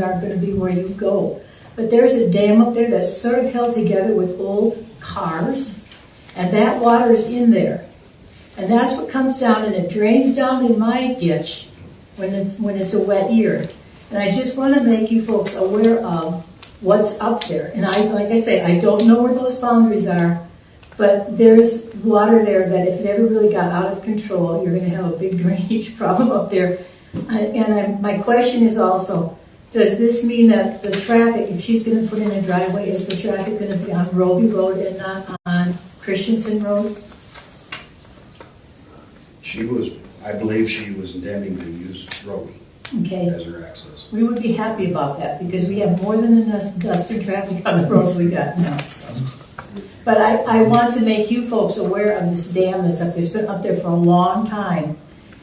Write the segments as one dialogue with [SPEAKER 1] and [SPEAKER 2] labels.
[SPEAKER 1] aren't gonna be where you go. But there's a dam up there that's sort of held together with old cars, and that water is in there. And that's what comes down and it drains down in my ditch when it's, when it's a wet year. And I just wanna make you folks aware of what's up there. And I, like I say, I don't know where those boundaries are, but there's water there that if it ever really got out of control, you're gonna have a big drainage problem up there. I- And I, my question is also, does this mean that the traffic, if she's gonna put in a driveway, is the traffic gonna be on Roby Road and not on Christensen Road?
[SPEAKER 2] She was, I believe she was intending to use Roby
[SPEAKER 1] Okay,
[SPEAKER 2] as her access.
[SPEAKER 1] we would be happy about that, because we have more than enough dust and traffic on the roads we got now, so. But I, I want to make you folks aware of this dam that's up there, it's been up there for a long time,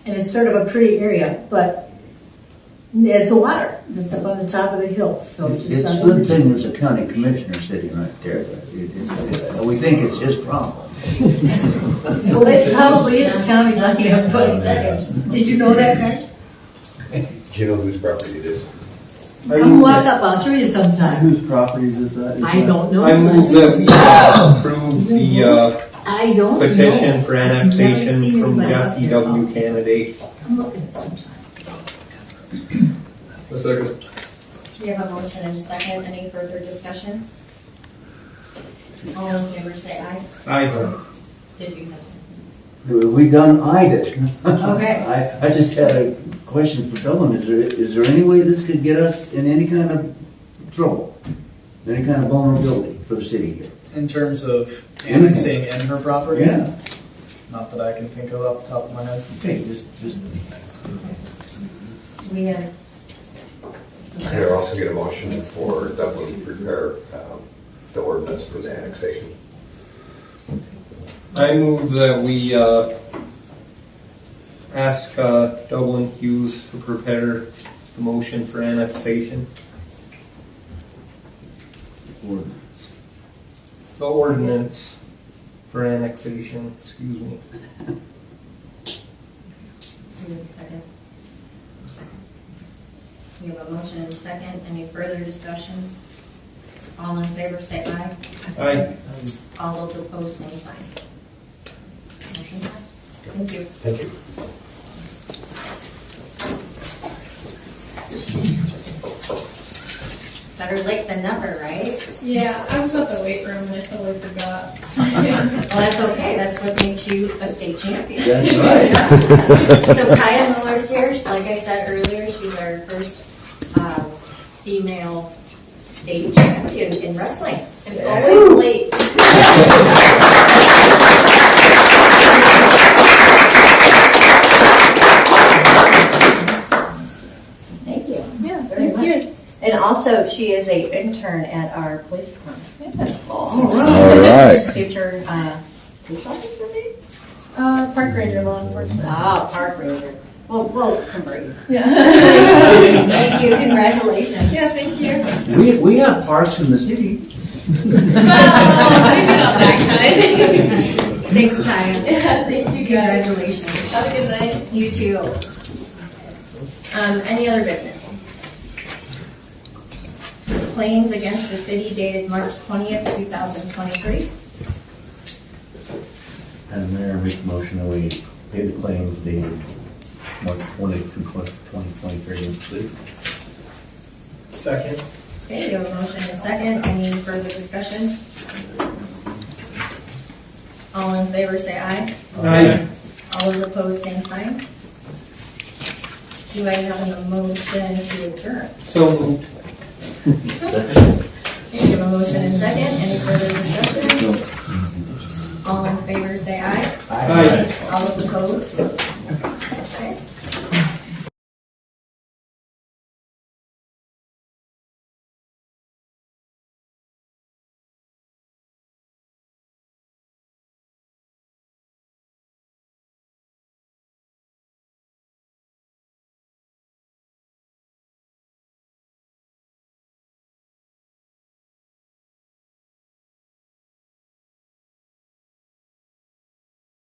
[SPEAKER 1] and it's sort of a pretty area, but it's a water that's up on the top of the hill, so just.
[SPEAKER 3] It's a good thing there's a county commissioner sitting right there. It- it- it- We think it's his problem.
[SPEAKER 1] Well, it probably is counting on you in 20 seconds. Did you know that, Greg?
[SPEAKER 4] Do you know whose property it is?
[SPEAKER 5] Are
[SPEAKER 1] Come
[SPEAKER 5] you-
[SPEAKER 1] walk up, I'll show you sometime.
[SPEAKER 5] Whose properties is that? Is
[SPEAKER 6] I
[SPEAKER 5] that-
[SPEAKER 6] don't know.
[SPEAKER 7] I move that we approve the uh,
[SPEAKER 6] I don't know.
[SPEAKER 7] petition for
[SPEAKER 6] Never
[SPEAKER 7] annexation
[SPEAKER 6] seen
[SPEAKER 7] from
[SPEAKER 6] anybody up
[SPEAKER 7] Jesse
[SPEAKER 6] there.
[SPEAKER 7] W. Candidate.
[SPEAKER 6] Come look at it sometime.
[SPEAKER 8] We have a motion and a second. Any further discussion? All in favor, say aye.
[SPEAKER 7] Aye.
[SPEAKER 8] Did you have to?
[SPEAKER 3] We we done IDIT.
[SPEAKER 8] Okay.
[SPEAKER 3] I, I just had a question for Dylan. Is there, is there any way this could get us in any kind of trouble? Any kind of vulnerability for the city here?
[SPEAKER 9] In terms of
[SPEAKER 3] Anything.
[SPEAKER 9] annexing in her
[SPEAKER 4] Oh,
[SPEAKER 9] property? Not that I can think of off the top of my head.
[SPEAKER 3] Okay, just, just.
[SPEAKER 8] We had,
[SPEAKER 4] And I also get a motion for Dublin to prepare um, the ordinance for the annexation.
[SPEAKER 7] I move that we uh, ask uh, Dublin Hughes to prepare the motion for annexation. The ordinance for annexation, excuse me.
[SPEAKER 8] we had a second. We have a motion and a second. Any further discussion? All in favor, say aye.
[SPEAKER 7] Aye.
[SPEAKER 8] All those opposed, same sign. Motion passed. Thank you.
[SPEAKER 4] Thank you.
[SPEAKER 8] Better late than never, right?
[SPEAKER 10] Yeah, I was at the weight room and I totally forgot.
[SPEAKER 8] Well, that's okay. That's what makes you a state champion.
[SPEAKER 3] That's right.
[SPEAKER 8] So Kaya Miller's here, like I said earlier, she's our first um, female state champion in wrestling. And always late. Thank you.
[SPEAKER 10] Yeah,
[SPEAKER 8] Very
[SPEAKER 10] thank you.
[SPEAKER 8] And also, she is a intern at our police department. All
[SPEAKER 11] All right.
[SPEAKER 8] Future uh, police officer, maybe?
[SPEAKER 10] Uh, park ranger, law enforcement.
[SPEAKER 8] Wow, park ranger. Well, we'll convert you.
[SPEAKER 10] Yeah.
[SPEAKER 8] Thank you, congratulations.
[SPEAKER 10] Yeah, thank you.
[SPEAKER 3] We, we have parks in the city.
[SPEAKER 8] Thanks, Ty.
[SPEAKER 10] Yeah, thank you guys.
[SPEAKER 8] Congratulations.
[SPEAKER 10] Have a good night.
[SPEAKER 8] You too. Um, any other business? Claims against the city dated March twentieth, two thousand twenty-three.
[SPEAKER 4] And Mayor, make motion that we pay the claims dated March 20, 2023 in the city.
[SPEAKER 7] Second.
[SPEAKER 8] Okay, you have a motion and second. Any further discussion? All in favor, say aye.
[SPEAKER 7] Aye.
[SPEAKER 8] All those opposed, same sign. Do I have a motion to adjourn?
[SPEAKER 7] So moved.
[SPEAKER 8] Okay, you have a motion and second. Any further discussion? All in favor, say aye.
[SPEAKER 7] Aye.
[SPEAKER 8] All those opposed?